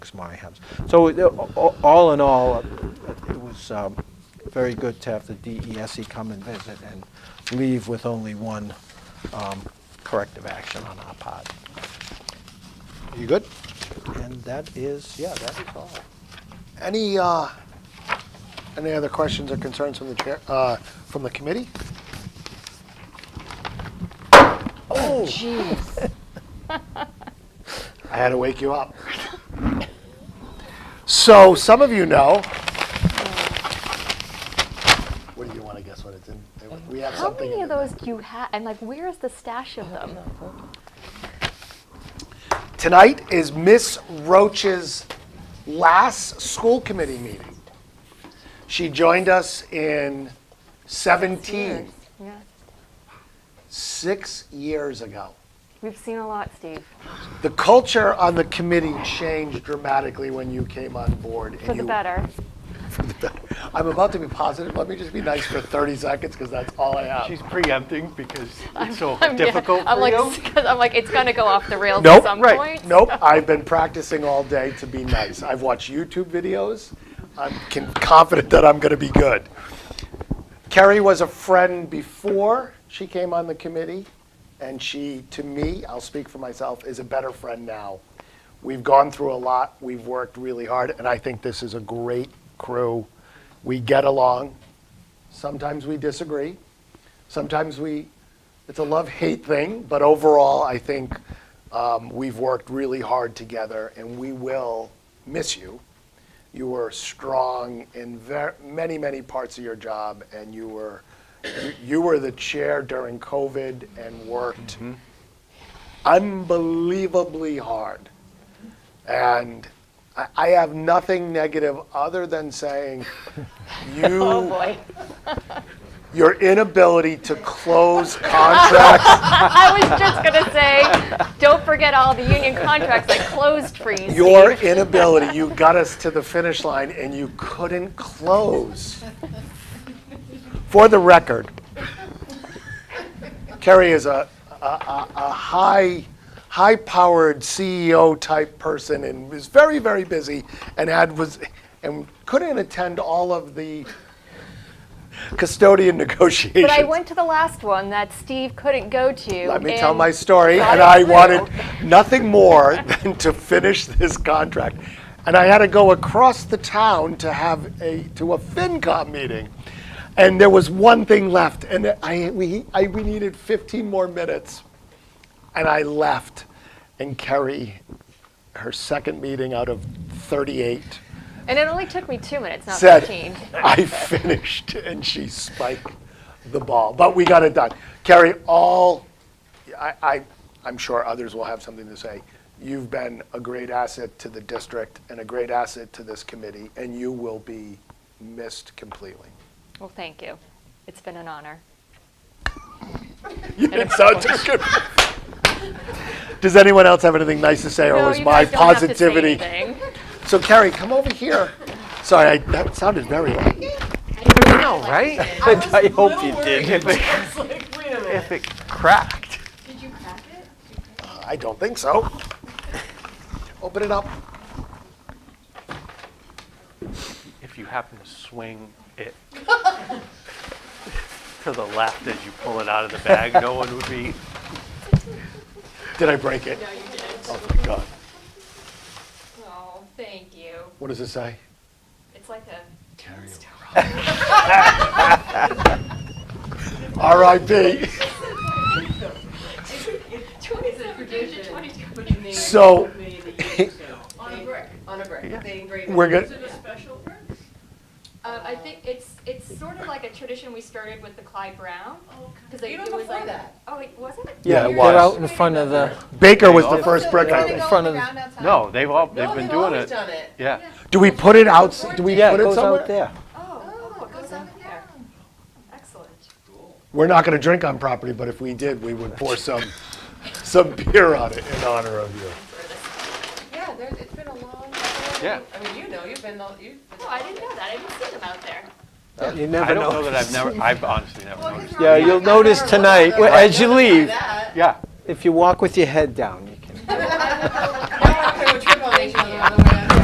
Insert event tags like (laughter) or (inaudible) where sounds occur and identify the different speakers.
Speaker 1: fix my house. So it- a- all in all, uh, it was um, very good to have the DESE E come and visit and leave with only one um, corrective action on our part.
Speaker 2: You good?
Speaker 1: And that is, yeah, that is all.
Speaker 2: Any, uh, any other questions or concerns from the chair, uh, from the committee?
Speaker 1: Oh,
Speaker 2: Oh,
Speaker 3: Jeez.
Speaker 2: I had to wake you up. So some of you know. What do you want to guess what it's in? We have
Speaker 3: How
Speaker 2: something.
Speaker 3: many
Speaker 2: in
Speaker 3: of
Speaker 2: the-
Speaker 3: those do you have? And like, where is the stash of them?
Speaker 2: Tonight is Miss Roach's last school committee meeting. She joined us in 17,
Speaker 3: Yeah.
Speaker 2: six years ago.
Speaker 3: We've seen a lot, Steve.
Speaker 2: The culture on the committee changed dramatically when you came on board. and
Speaker 3: For the
Speaker 2: you-
Speaker 3: (laughs) better.
Speaker 2: For the better. I'm about to be positive. Let me just be nice for 30 seconds because that's all I have.
Speaker 4: She's preempting because it's so
Speaker 3: I'm- yeah,
Speaker 4: difficult
Speaker 3: I'm
Speaker 4: for
Speaker 3: like, (laughs)
Speaker 4: you.
Speaker 3: 'cause I'm like, it's gonna go off the rails at
Speaker 2: Nope,
Speaker 3: some point.
Speaker 2: Nope, I've been practicing all day to be nice. I've watched YouTube videos. I'm con- confident that I'm going to be good. Kerry was a friend before she came on the committee, and she, to me, I'll speak for myself, is a better friend now. We've gone through a lot, we've worked really hard, and I think this is a great crew. We get along. Sometimes we disagree. Sometimes we, it's a love hate thing, but overall, I think um, we've worked really hard together and we will miss you. You were strong in ver- many, many parts of your job and you were, you, you were the chair during COVID and worked
Speaker 3: Mm-hmm.
Speaker 2: unbelievably hard. And I, I have nothing negative other than
Speaker 3: (laughs)
Speaker 2: saying you
Speaker 3: Oh boy.
Speaker 2: your inability to close
Speaker 3: (laughs)
Speaker 2: contracts,
Speaker 3: I was just (laughs) gonna say, don't forget all the union contracts I closed for (laughs) you.
Speaker 2: your
Speaker 3: Steve.
Speaker 2: inability, you got us to the finish line and you couldn't close. For the record, Kerry is a, a, a, a high, high-powered CEO type person and was very, very busy and had was, and couldn't attend all of the custodian (laughs) negotiations.
Speaker 3: But I went to the last one that Steve couldn't go to.
Speaker 2: Let me tell
Speaker 3: and-
Speaker 2: my story, and
Speaker 3: got it
Speaker 2: I
Speaker 3: through.
Speaker 2: wanted nothing more (laughs) than to finish this contract. And I had to go across the town to have a, to a FinCom meeting. And there was one thing left, and I, we, I, we needed 15 more minutes. And I left, and Kerry, her second meeting out of 38,
Speaker 3: And it only took me two minutes, not
Speaker 2: said,
Speaker 3: 15.
Speaker 2: (laughs) I finished, and she spiked the ball. But we got it done. Carrie, all, I, I, I'm sure others will have something to say. You've been a great asset to the district and a great asset to this committee, and you will be missed completely. (laughs)
Speaker 3: Well, thank you. It's been an honor.
Speaker 2: You didn't sound too good. Does anyone else have anything nice to say, or
Speaker 3: No,
Speaker 2: was
Speaker 3: you
Speaker 2: my
Speaker 3: guys don't have to say
Speaker 2: positivity?
Speaker 3: anything. (laughs)
Speaker 2: So Carrie, come over here. Sorry, I, that sounded very.
Speaker 4: No, right?
Speaker 5: I, was
Speaker 1: I
Speaker 5: a
Speaker 1: hope
Speaker 5: little
Speaker 1: you
Speaker 5: worried.
Speaker 1: did.
Speaker 5: I was like, wait a minute.
Speaker 4: If it cracked.
Speaker 5: Did you crack it?
Speaker 2: Uh, I don't think so. Open it up.
Speaker 4: If you happen to swing it (laughs) to the left as you pull it out of the bag, no one would be.
Speaker 2: Did I break it?
Speaker 5: No, you didn't.
Speaker 2: Oh my God.
Speaker 5: Oh, thank you.
Speaker 2: What does it say?
Speaker 5: It's like a.
Speaker 2: R.I.P. So-
Speaker 6: (laughs)
Speaker 5: On a brick. On a brick. They engrave
Speaker 2: (laughs) We're good.
Speaker 5: it a special brick?
Speaker 7: Um, I think it's, it's sort of like a tradition we started with the Clyde Brown. Because
Speaker 5: Even before that.
Speaker 7: Oh, it wasn't?
Speaker 2: Yeah, it
Speaker 1: They're out
Speaker 2: was.
Speaker 1: in front of the,
Speaker 2: Baker was the first brick, I
Speaker 1: in
Speaker 2: think.
Speaker 1: front of,
Speaker 4: No, they've all, they've
Speaker 5: No,
Speaker 4: been
Speaker 5: they've
Speaker 4: doing
Speaker 5: always
Speaker 4: it.
Speaker 5: done it.
Speaker 4: Yeah.
Speaker 2: Do we put it out, do we
Speaker 1: yeah, it
Speaker 2: put it
Speaker 1: goes out
Speaker 2: somewhere?
Speaker 1: there.
Speaker 7: Oh, oh, it goes up there. Excellent.
Speaker 2: We're not gonna drink on property, but if we did, we would pour some, some beer on it in honor of you.
Speaker 6: Yeah, there, it's been a long
Speaker 4: Yeah.
Speaker 6: time. I mean, you know, you've been, the- you've been.
Speaker 7: Oh, I didn't know that. I didn't see them out there.
Speaker 1: You
Speaker 4: I
Speaker 1: never
Speaker 4: don't know
Speaker 1: know.
Speaker 4: that I've never, I've honestly never noticed.
Speaker 1: Yeah, you'll notice tonight, as you leave,
Speaker 6: That. (laughs)
Speaker 4: Yeah,
Speaker 1: if you walk with your head down, you can.
Speaker 6: I